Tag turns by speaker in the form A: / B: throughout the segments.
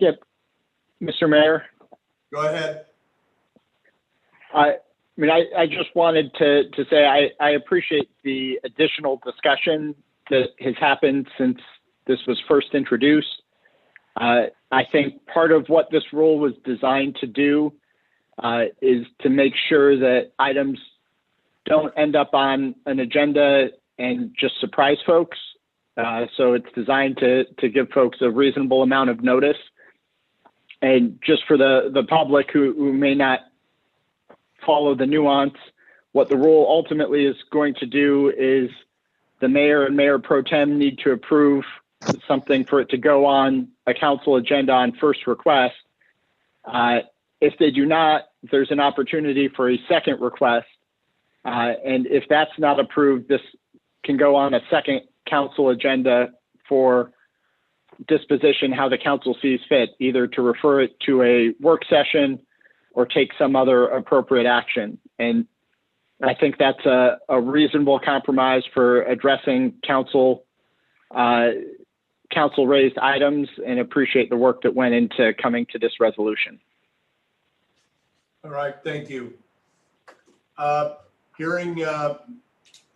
A: Yep. Mr. Mayor,
B: Go ahead.
A: I, I mean, I, I just wanted to, to say I, I appreciate the additional discussion that has happened since this was first introduced. Uh, I think part of what this rule was designed to do uh, is to make sure that items don't end up on an agenda and just surprise folks. Uh, so it's designed to, to give folks a reasonable amount of notice. And just for the, the public who, who may not follow the nuance, what the rule ultimately is going to do is the mayor and mayor pro tem need to approve something for it to go on a council agenda on first request. Uh, if they do not, there's an opportunity for a second request. Uh, and if that's not approved, this can go on a second council agenda for disposition, how the council sees fit, either to refer it to a work session or take some other appropriate action. And I think that's a, a reasonable compromise for addressing council, uh, council raised items and appreciate the work that went into coming to this resolution.
B: All right, thank you. Uh, Hearing uh,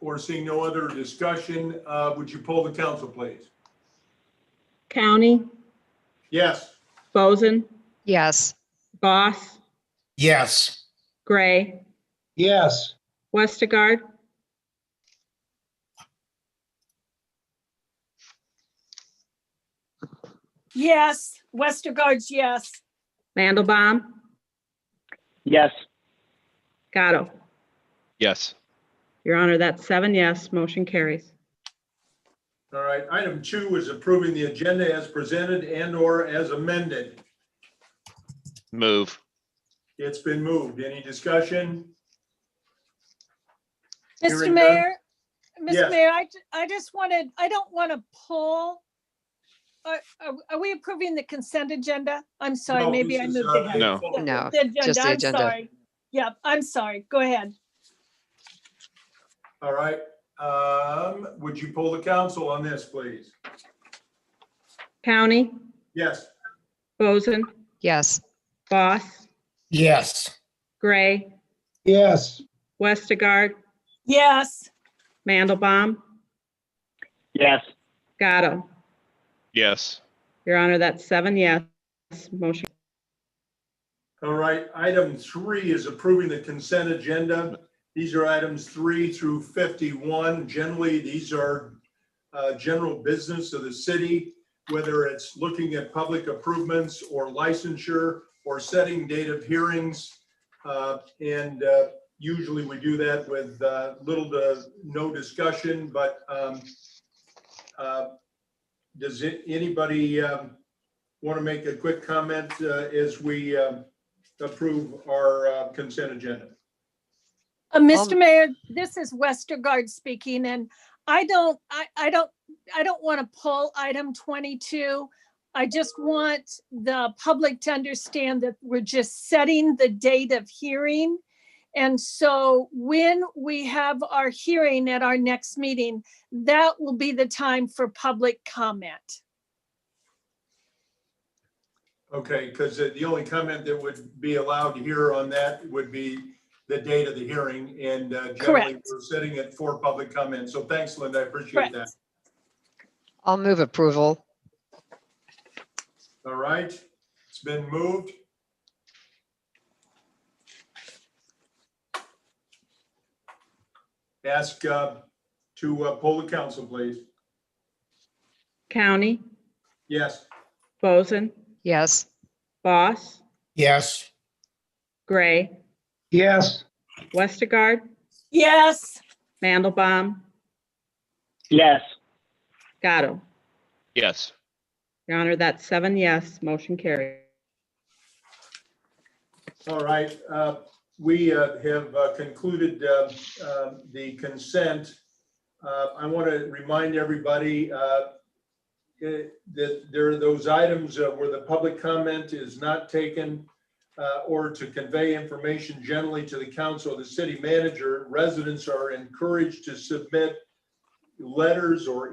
B: or seeing no other discussion, uh, would you pull the council, please?
C: County,
B: Yes,
C: Boson,
D: Yes,
C: Goss,
E: Yes.
C: Gray,
E: Yes.
C: Westergaard,
F: Yes, Westergaard's yes.
C: Mandelbaum,
A: Yes,
C: Gatto.
G: Yes.
C: Your Honor, that's seven yes, motion carries.
B: all right. Item two is approving the agenda as presented and/or as amended.
G: Move.
B: It's been moved. Any discussion?
F: Mr.
B: Hearing none.
F: Mayor,
B: Yes.
F: Mr. Mayor, I, ju- I just wanted, I don't want to pull. Are, are- are we approving the consent agenda? I'm sorry,
B: No,
F: maybe
B: this
F: I
B: is,
F: moved
B: uh,
F: ahead.
G: No.
B: painful.
D: no,
F: The
D: just the
F: agenda, I'm
D: agenda.
F: sorry. Yep, I'm sorry. Go ahead.
B: All right, um, would you pull the council on this, please?
C: County,
B: Yes,
C: Boson,
D: yes,
C: Goss,
E: Yes.
C: Gray,
E: Yes.
C: Westergaard,
F: Yes,
C: Mandelbaum,
A: yes,
C: Gatto.
G: Yes.
C: Your Honor, that's seven yes, motion.
B: all right. Item three is approving the consent agenda. These are items three through 51. Generally, these are uh, general business of the city, whether it's looking at public improvements or licensure or setting date of hearings. Uh, And uh, usually we do that with uh, little to no discussion, but um, uh, does it- anybody want to make a quick comment uh, as we um, approve our uh, consent agenda?
F: Uh, Mr.
D: Um,
F: Mayor, this is Westergaard speaking, and I don't, I, I don't, I don't want to pull item twenty-two. I just want the public to understand that we're just setting the date of hearing. And so when we have our hearing at our next meeting, that will be the time for public comment.
B: Okay, because the only comment that would be allowed here on that would be the date of the hearing and uh, generally
F: Correct.
B: we're setting it for public comment. So thanks, Linda. I appreciate
F: Correct.
B: that.
D: I'll move approval.
B: All right, it's been moved. Ask uh, to uh, poll the council, please.
C: County,
B: Yes,
C: Boson,
D: Yes,
C: Goss,
E: Yes.
C: Gray,
E: Yes.
C: Westergaard,
F: Yes,
C: Mandelbaum,
A: yes,
C: Gatto.
G: Yes.
C: Your Honor, that's seven yes, motion carries.
B: all right. uh, We uh, have uh, concluded uh, uh, the consent. Uh, I want to remind everybody uh, eh, that there are those items uh, where the public comment is not taken uh, or to convey information generally to the council or the city manager, residents are encouraged to submit letters or